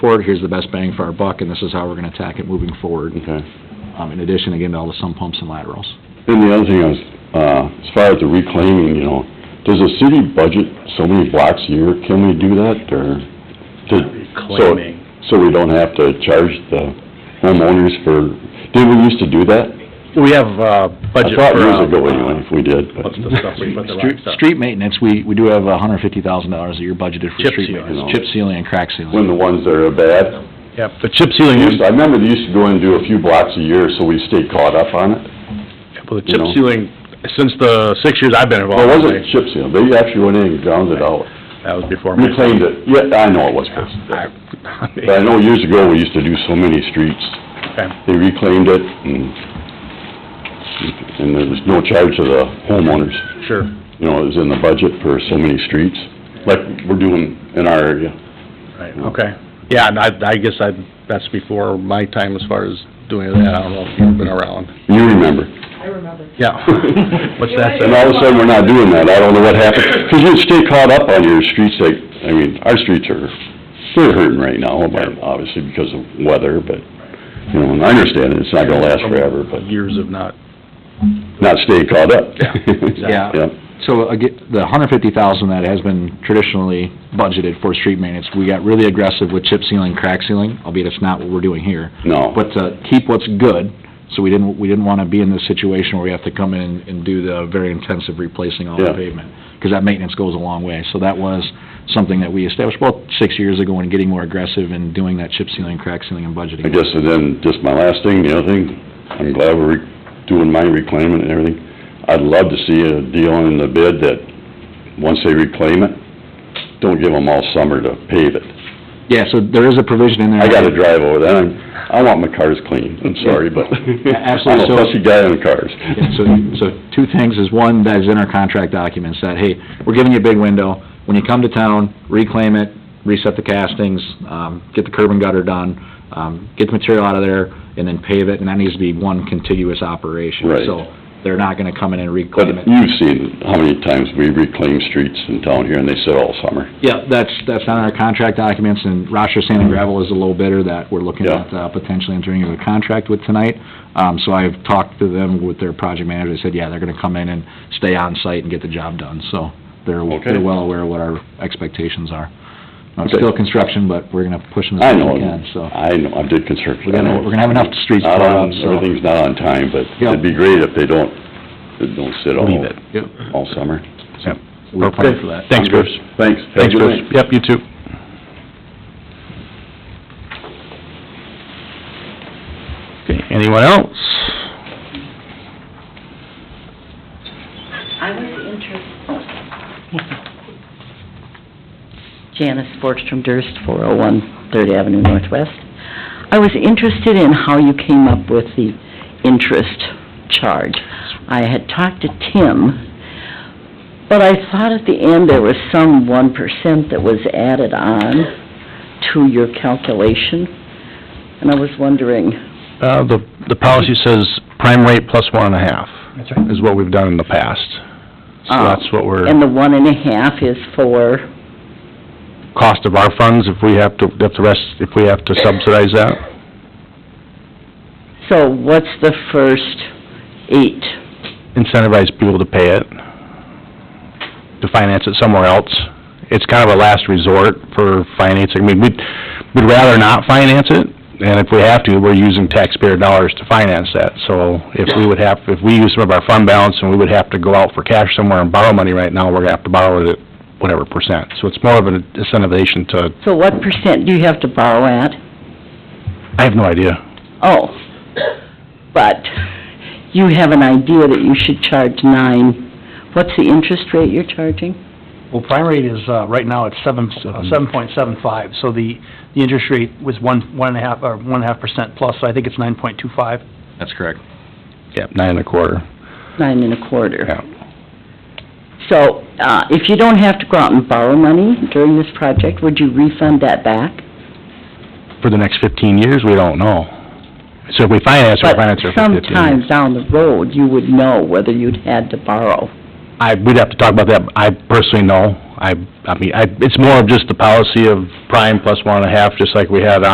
forward, here's the best bang for our buck, and this is how we're gonna attack it moving forward. Okay. Um, in addition, again, to all the sump pumps and laterals. Then the other thing is, uh, as far as the reclaiming, you know, does the city budget so many blocks a year? Can we do that, or? to- so- Reclaiming. So we don't have to charge the homeowners for, did we used to do that? We have, uh, budget for. I thought years uh, ago anyway, if we did, but. What's the stuff we put the rock Street- stuff? Street maintenance, we, we do have hundred fifty thousand dollars a year budgeted for Chip street seal. maintenance, chip sealing and crack When sealing. the ones that are bad, Yep, the chip sealing, They is- used- I remember they used to go in and do a few blocks a year, so we stayed caught up on it. well, the you chip know. sealing, since the six years I've been Well, it wasn't involved, that chip seal, they actually went in and ground it out, was before my. reclaimed it, yeah, I know it was, Chris. But I know years ago, we used to do so many streets, Okay. they reclaimed it, and, and there was no charge to the homeowners. Sure. You know, it was in the budget for so many streets, like we're doing in our area. Right, okay. Yeah, and I, I guess I, that's before my time as far as doing that. I don't know if you've been around. You remember. I remember. Yeah. What's that? And all of a sudden, we're not doing that, I don't know what happened, because you stay caught up on your streets, like, I mean, our streets are, they're hurting right now, but obviously because of weather, but, you know, and I understand it, it's not gonna last forever, but Years of not, not stay caught up. Yeah, exactly. Yeah. Yeah. So again, the hundred fifty thousand that has been traditionally budgeted for street maintenance, we got really aggressive with chip sealing, crack sealing, albeit it's not what we're doing here. no. But to keep what's good, so we didn't, we didn't wanna be in this situation where we have to come in and- and do the very intensive replacing all the Yeah. pavement. Cause that maintenance goes a long way, so that was something that we established about six years ago and getting more aggressive and doing that chip sealing, crack sealing and budgeting. I guess, and then, just my last thing, the other thing, I'm glad we're re- doing my reclaiming and everything. I'd love to see a deal in the bid that, once they reclaim it, don't give them all summer to pave it. Yeah, so there is a provision in there. I gotta drive over there, and I want my cars clean, I'm sorry, but Absolutely, so- I'm a fussy guy on cars. Yeah, So, so two things is, one, that is in our contract documents, that, hey, we're giving you a big window. When you come to town, reclaim it, reset the castings, um, get the curb and gutter done, um, get the material out of there, and then pave it, and that needs to be one continuous operation. Right. So they're not gonna come in and But reclaim it. you've seen how many times we reclaim streets in town here, and they sit all summer. Yeah, that's, that's on our contract documents, and Rochester Sand and Gravel is a low bidder that we're looking Yeah. at uh, potentially entering into a contract with tonight. Um, so I've talked to them with their project manager, they said, yeah, they're gonna come in and stay on site and get the job done, so they're, Okay. they're well aware of what our expectations are. Now, It's Okay. still construction, but we're gonna push them as I best know, we can, so. I know, I did construction. We're gonna, we're gonna have enough streets Not plowed up, on, so. everything's not on time, but Yeah. it'd be great if they don't, they don't sit all, Leave it. Yep. all summer. We're planning for that. Thanks, Bruce. Thanks. Thanks, Bruce. Yep, you too. Okay, anyone else? I was interested. Janice Borgstrom Durst, 401 Third Avenue Northwest. I was interested in how you came up with the interest charge. I had talked to Tim, but I thought at the end there was some 1% that was added on to your calculation, and I was wondering, Uh, the, the policy says prime rate plus one and a half. That's right. Is what we've done in the past. So Oh. that's what we're, and the one and a half is for, cost of our funds, if we have to, if the rest, if we have to subsidize that. so what's the first eight? incentivize people to pay it, to finance it somewhere else. It's kind of a last resort for financing. I mean, we'd, we'd rather not finance it, and if we have to, we're using taxpayer dollars to finance that. So if we would have, if we use some of our fund balance and we would have to go out for cash somewhere and borrow money right now, we're gonna have to borrow it at whatever percent. So it's more of an incentivization to, So what percent do you have to borrow at? I have no idea. Oh, but you have an idea that you should charge nine. What's the interest rate you're charging? Well, prime rate is, uh, right now, it's seven, seven point seven five, so the, the interest rate was one, one and a half, or one and a half percent plus, so I think it's nine point two five. That's correct. Yeah, nine and a quarter. Nine and a quarter. Yeah. So, uh, if you don't have to go out and borrow money during this project, would you refund that back? For the next fifteen years, we don't know. So if we finance, we But finance it for fifteen years. sometime down the road, you would know whether you'd had to borrow. I, we'd have to talk about that, I personally know, I, I mean, I, it's more of just the policy of prime plus one and a half, just like we had on.